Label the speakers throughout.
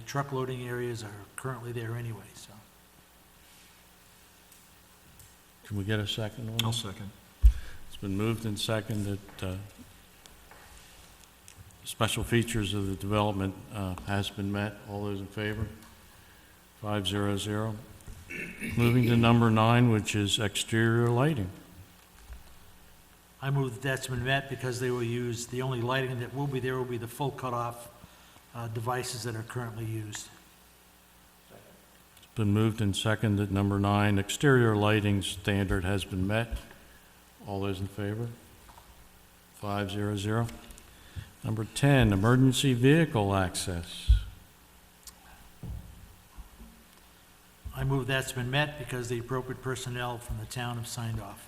Speaker 1: truck loading areas are currently there anyway, so.
Speaker 2: Can we get a second on
Speaker 3: I'll
Speaker 2: this?
Speaker 3: second.
Speaker 2: It's been moved and seconded that uh, special features of the development uh, has been met. All those in favor? Five zero zero. Moving to number nine, which is exterior lighting.
Speaker 1: I move that that's been met because they will use, the only lighting that will be there will be the full cutoff uh, devices that are currently used.
Speaker 2: It's been moved and seconded that number nine, exterior lighting standard has been met. All those in favor? Five zero zero. Number 10, emergency vehicle access.
Speaker 1: I move that's been met because the appropriate personnel from the town have signed off.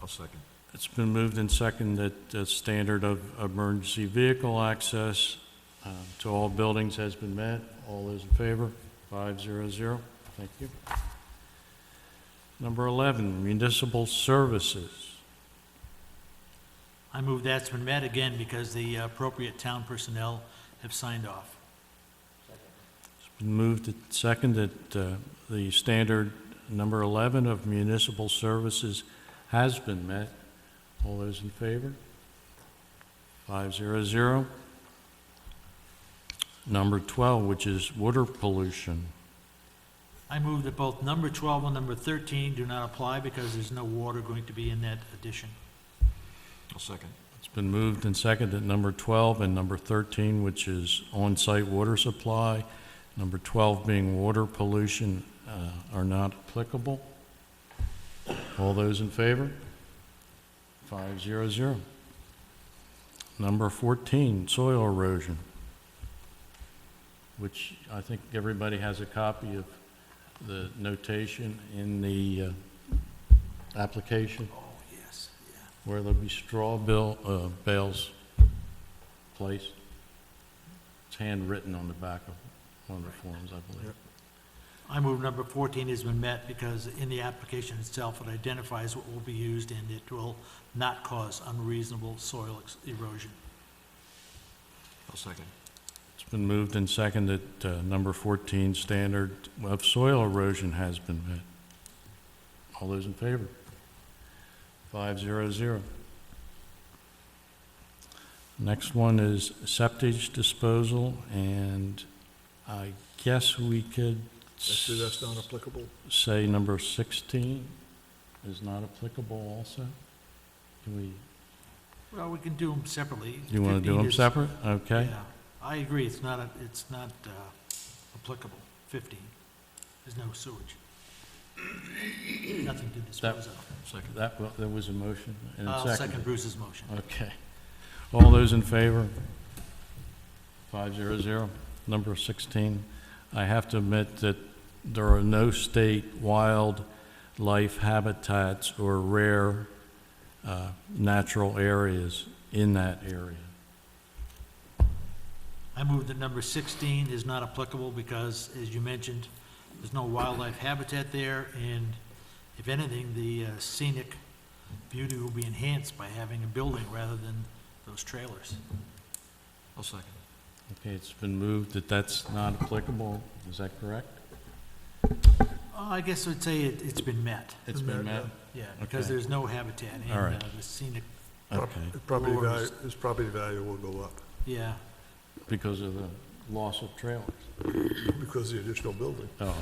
Speaker 3: I'll second.
Speaker 2: It's been moved and seconded that the standard of emergency vehicle access um, to all buildings has been met. All those in favor? Five zero zero. Thank you. Number 11, municipal services.
Speaker 1: I move that's been met again because the appropriate town personnel have signed off.
Speaker 2: It's been moved and seconded that uh, the standard number 11 of municipal services has been met. All those in favor? Five zero zero. Number 12, which is water pollution.
Speaker 1: I move that both number 12 and number 13 do not apply because there's no water going to be in that addition.
Speaker 3: I'll second.
Speaker 2: It's been moved and seconded, number 12 and number 13, which is on-site water supply, number 12 being water pollution, uh, are not applicable. All those in favor? Five zero zero. Number 14, soil erosion, which I think everybody has a copy of the notation in the uh, application
Speaker 1: Oh, yes, yeah.
Speaker 2: where there'll be straw bill, uh, bales placed. It's handwritten on the back of one of the forms, I believe.
Speaker 3: Yep.
Speaker 1: I move number 14 has been met because in the application itself, it identifies what will be used and it will not cause unreasonable soil ex- erosion.
Speaker 3: I'll second.
Speaker 2: It's been moved and seconded, uh, number fourteen, standard of soil erosion has been met. All those in favor? Five zero zero. Next one is septic disposal, and I guess we could.
Speaker 3: that's not applicable?
Speaker 2: say number 16 is not applicable also? Can we,
Speaker 1: Well, we can do them separately.
Speaker 2: you want to do
Speaker 1: 15
Speaker 2: them
Speaker 1: is-
Speaker 2: separate? Okay.
Speaker 1: Yeah, I agree, it's not, a- it's not uh, applicable, 15. There's no sewage. Nothing to dispose of.
Speaker 3: Second.
Speaker 2: That, wa- there was a motion and a 2nd
Speaker 1: I'll second Bruce's motion.
Speaker 2: Okay. All those in favor? Five zero zero. Number 16, I have to admit that there are no state wildlife habitats or rare uh, natural areas in that area.
Speaker 1: I move that number 16 is not applicable because, as you mentioned, there's no wildlife habitat there, and if anything, the uh, scenic beauty will be enhanced by having a building rather than those trailers.
Speaker 3: I'll second.
Speaker 2: Okay, it's been moved that that's not applicable, is that correct?
Speaker 1: Oh, I guess I'd say it- it's been met,
Speaker 2: It's been met?
Speaker 1: yeah, because
Speaker 2: Okay.
Speaker 1: there's no habitat, and
Speaker 2: All
Speaker 1: uh,
Speaker 2: right.
Speaker 1: the scenic,
Speaker 2: Okay,
Speaker 4: His Property value,
Speaker 1: Lowers.
Speaker 4: his property value will go up
Speaker 1: yeah.
Speaker 2: because of the loss of trailers.
Speaker 4: because of the additional building.
Speaker 2: Oh.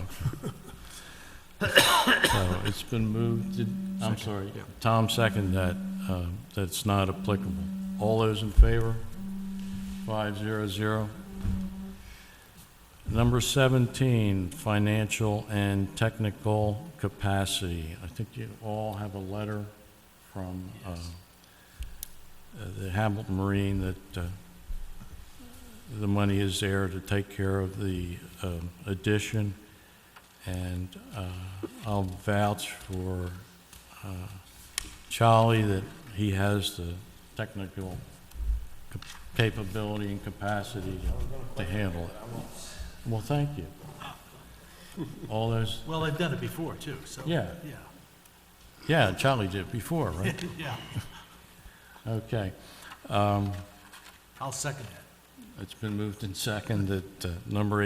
Speaker 2: okay. So it's been moved, to- I'm sorry,
Speaker 3: yeah.
Speaker 2: Tom seconded that, uh, that's not applicable. All those in favor? Five zero zero. Number 17, financial and technical capacity. I think you all have a letter from uh,
Speaker 1: Yes.
Speaker 2: uh, the Hamilton Marine that uh, the money is there to take care of the um, addition, and uh, I'll vouch for uh, Charlie that he has the technical cap- capability and capacity to handle it. Well, thank you. All those,
Speaker 1: Well, I've done it before, too, so.
Speaker 2: Yeah.
Speaker 1: Yeah,
Speaker 2: yeah, Charlie did before, right?
Speaker 1: yeah,
Speaker 2: Okay.
Speaker 1: I'll second that.
Speaker 2: It's been moved and seconded that uh, number